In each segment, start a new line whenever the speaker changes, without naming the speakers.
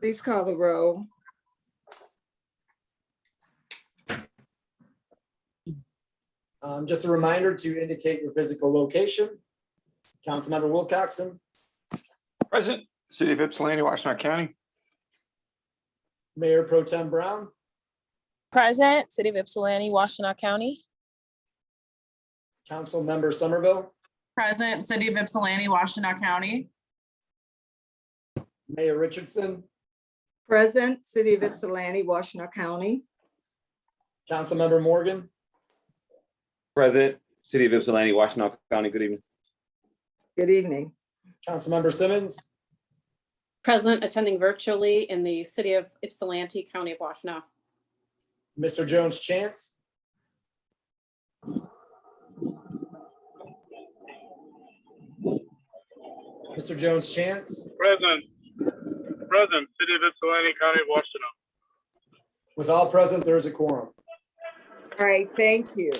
Please call the roll.
Um, just a reminder to indicate your physical location. Councilmember Wilcoxen,
Present, City of Ypsilanti, Washtenaw County.
Mayor Pro Tem Brown,
Present, City of Ypsilanti, Washtenaw County.
Councilmember Somerville,
Present, City of Ypsilanti, Washtenaw County.
Mayor Richardson,
Present, City of Ypsilanti, Washtenaw County.
Councilmember Morgan,
President, City of Ypsilanti, Washtenaw County, good evening.
Good evening.
Councilmember Simmons,
Present, attending virtually in the city of Ypsilanti, County of Washtenaw.
Mr. Jones Chance, Mr. Jones Chance,
Present. Present, City of Ypsilanti County, Washington.
with all present, there is a quorum.
All right, thank you.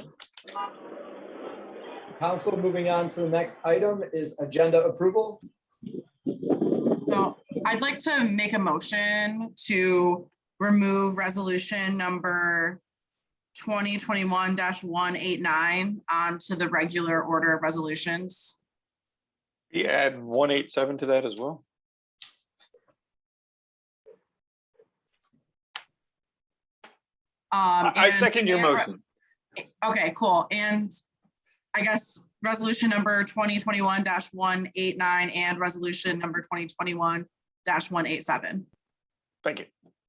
Council, moving on to the next item is agenda approval.
So I'd like to make a motion to remove resolution number twenty twenty-one one eight nine onto the regular order of resolutions.
You add one eight seven to that as well. I
Um,
I
and-
second your
and-
motion.
Okay, cool. And I guess resolution number twenty twenty-one one eight nine and resolution number twenty twenty-one one eight seven.
Thank you.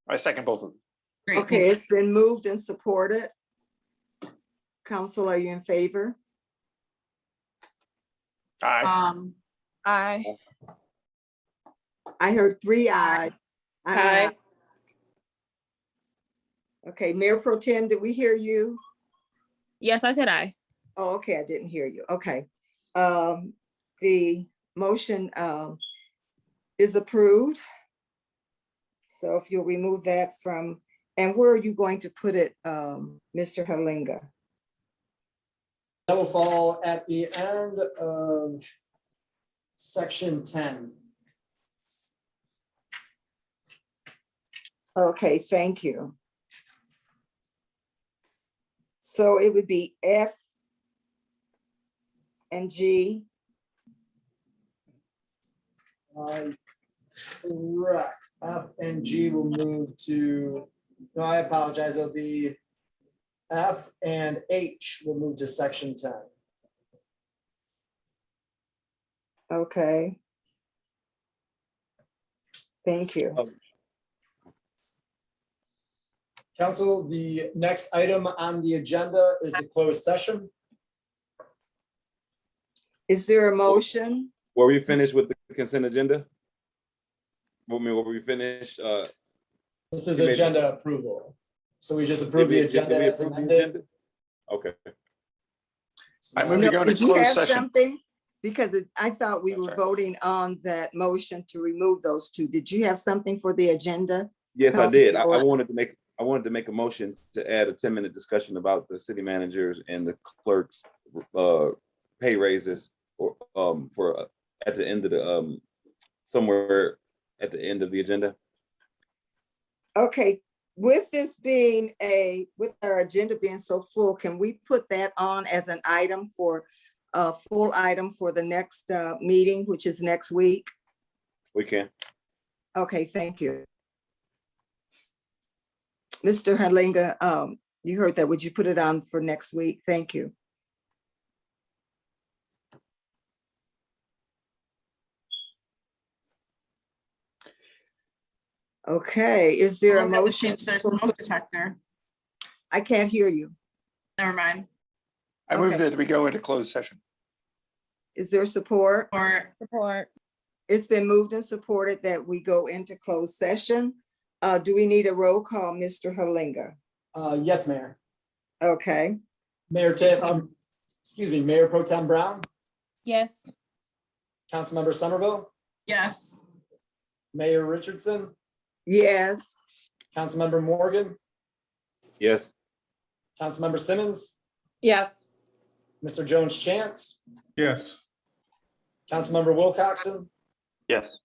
I second both of them.
Great.
Okay, it's been moved and supported. Council, are you in favor?
Aye.
Um,
Aye.
I heard three ayes. I'm an
Aye.
aye. Okay, Mayor Pro Tem, did we hear you?
Yes, I said aye.
Oh, okay, I didn't hear you. Okay. Um, the motion, um, is approved. So if you'll remove that from, and where are you going to put it, um, Mr. Halinga?
That will fall at the end of section ten.
Okay, thank you. So it would be F and G.
Uh, Correct. F and G will move to, no, I apologize, it'll be F and H will move to section ten.
Okay. Thank you.
Council, the next item on the agenda is a closed session.
Is there a motion?
Were we finished with the consent agenda? What mean, were we finished? uh,
This is agenda approval. So we just
did
approve the
we- did
agenda
we
as
approve the
amended.
agenda? Okay,
I move
No,
to go to
Did you
closed
have
session.
something? Because it- I thought we
I'm
were
sorry.
voting on that motion to remove those two. Did you have something for the agenda?
yes, I
Council
did. I I
George.
wanted to make, I wanted to make a motion to add a ten-minute discussion about the city managers and the clerks uh, pay raises or um, for, uh, at the end of the, um, somewhere at the end of the agenda.
Okay, with this being a, with our agenda being so full, can we put that on as an item for a full item for the next uh, meeting, which is next week?
We can.
Okay, thank you. Mr. Halinga, um, you heard that. Would you put it on for next week? Thank you. Okay, is there a
Someone's got to
motion?
change Their smoke detector.
I can't hear you.
Never mind.
I move
okay.
that we go into closed session.
Is there support?
Or
Support.
It's been moved and supported that we go into closed session. Uh, do we need a roll call, Mr. Halinga?
Uh, yes, Mayor.
Okay,
Mayor Tim, um, excuse me, Mayor Pro Tem Brown,
Yes.
Councilmember Somerville,
yes.
Mayor Richardson,
yes.
Councilmember Morgan,
Yes.
Councilmember Simmons,
Yes.
Mr. Jones Chance,
Yes.
Councilmember Wilcoxen,
Yes.